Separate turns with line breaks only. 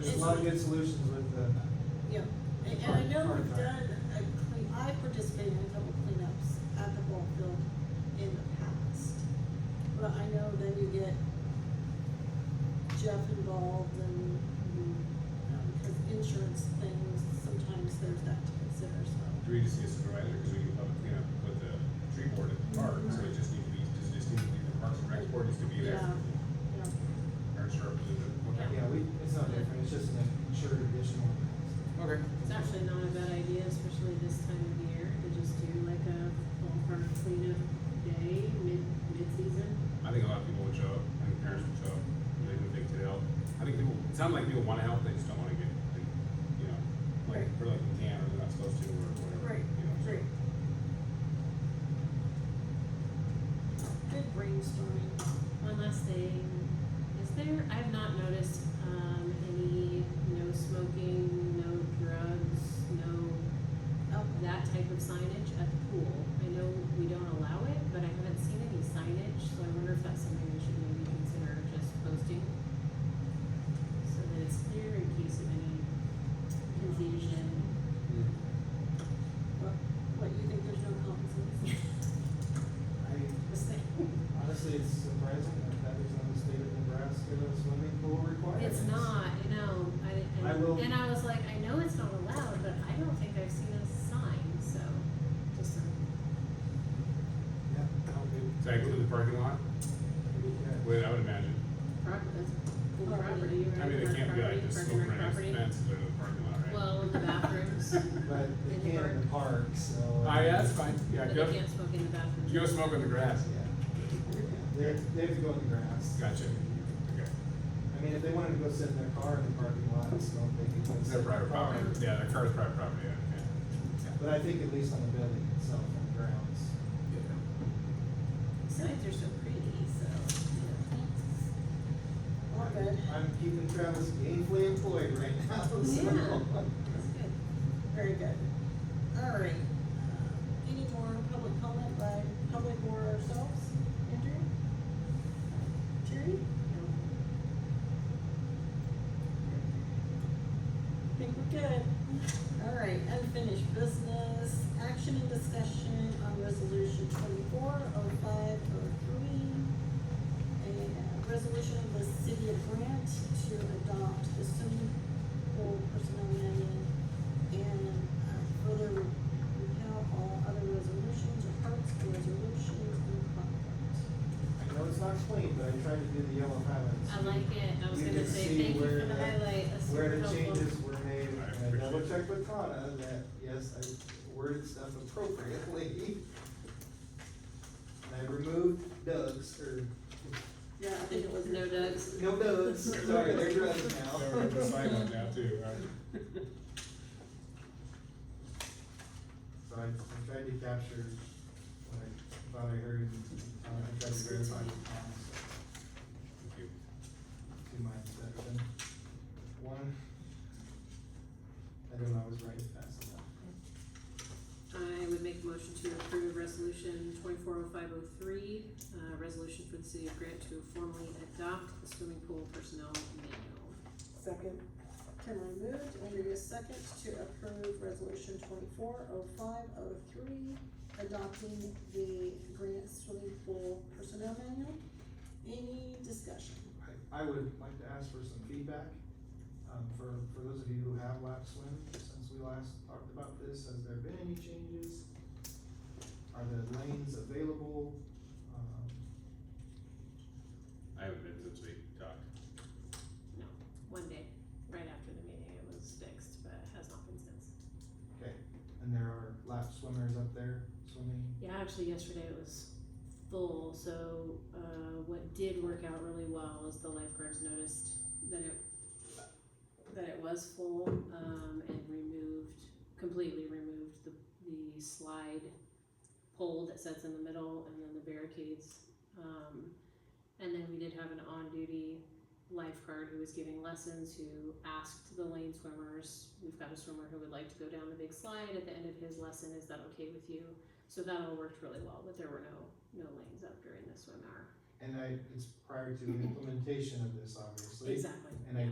There's a lot of good solutions with the,
Yeah, and, and I know we've done a clean, I participated in a couple cleanups at the ball field in the past. But I know then you get Jeff involved and, um, cause insurance things, sometimes there's that to consider, so.
Do we just need a supervisor, because we can probably clean up with the tree board at the park, so it just need to be, just, just need to be the parks and rec board needs to be there.
Yeah, yeah.
Or it's representative, okay.
yeah, we, it's not different, it's just an insured additional.
Okay.
It's actually not a bad idea, especially this time of year, to just do like a fall park cleanup day, mid, mid-season.
I think a lot of people would show up, I think parents would show up, they would think to help. I think people, it sounds like people wanna help, they just don't wanna get, like, you know, like, or like they can, or they're not supposed to, or whatever,
Right,
you know. so-
right. Good brainstorming.
One last thing, is there, I have not noticed, um, any no smoking, no drugs, no, that type of signage at the pool. I know we don't allow it, but I haven't seen any signage, so I wonder if that's something we should maybe consider just posting. So that it's clear in case of any confusion.
What, what, you think there's no competency?
I mean,
Just saying.
honestly, it's surprising that that is on the state of Nebraska swimming pool requirements.
It's not, I know, I,
I will-
and, and I was like, I know it's not allowed, but I don't think I've seen a sign, so, just, a-
Yeah, I'll do.
So I go to the parking lot,
Yeah.
well, I would imagine,
prop, that's pool
Oh,
property, right?
I mean,
Park
it can't be
property,
like just over
parking lot
next
property.
fence, go to the parking lot, right?
Well, in the bathrooms,
But
In the
they can in the park, so.
Ah, yeah, that's fine, yeah,
but
go,
they can't smoke in the bathrooms.
you go smoke on the grass.
Yeah. They, they have to go in the grass.
Gotcha, okay.
I mean, if they wanted to go sit in their car in the parking lot, and smoke, they could go
It's
sit
their
in their
private
car.
property, yeah, their car's private property, yeah, okay.
But I think at least on the building itself, on the grounds.
Signs are so pretty, so,
All good.
I'm keeping Travis gainfully employed right now, so.
Oh, Yeah.
That's good. Very good. All right. Uh, Any more public comment by public or ourselves? Andrew? Terry? No. Think we're good. All right, unfinished business, action and discussion on resolution twenty-four oh five oh three a uh, resolution of the city of Grant to adopt the swimming pool personnel manual and uh, further repeal all other resolutions or parts of resolutions in conflict.
I know it's not clean, but I tried to do the yellow highlights.
I like it, I was
You
gonna
can
say,
see
thank you
where
for the
the-
highlight, that's super
Where
helpful.
the changes were made,
I
and I
appreciate
double
it.
checked with Donna that, yes, I worded stuff appropriately. And I removed Doug's, or,
Yeah, I
There was no ducks.
no Doug's, sorry, they're Doug's now.
They were the sign on now too, right?
So I, I tried to capture what I thought I heard, and uh, I tried to verify the comments,
Thank you.
to my perception. One, I don't know, I was right fast enough.
I would make a motion to approve resolution twenty-four oh five oh three, uh, resolution for the city of Grant to formally adopt the swimming pool personnel manual.
Second. Kimberly moved, Andrea second to approve resolution twenty-four oh five oh three, adopting the Grant swimming pool personnel manual. Any discussion?
I, I would like to ask for some feedback, um, for, for those of you who have lap swim, since we last talked about this, has there been any changes? Are the lanes available? Um,
I haven't been since we talked.
No, one day, right after the meeting, it was fixed, but has not been since.
Okay, and there are lap swimmers up there swimming?
Yeah, actually yesterday it was full, so, uh, what did work out really well is the lifeguards noticed that it, that it was full, um, and removed, completely removed the, the slide pole that sits in the middle and then the barricades. Um, and then we did have an on-duty lifeguard who was giving lessons, who asked the lane swimmers, we've got a swimmer who would like to go down the big slide at the end of his lesson, is that okay with you? So that all worked really well, but there were no, no lanes up during the swim hour.
And I, it's prior to implementation of this, obviously.
Exactly.
And I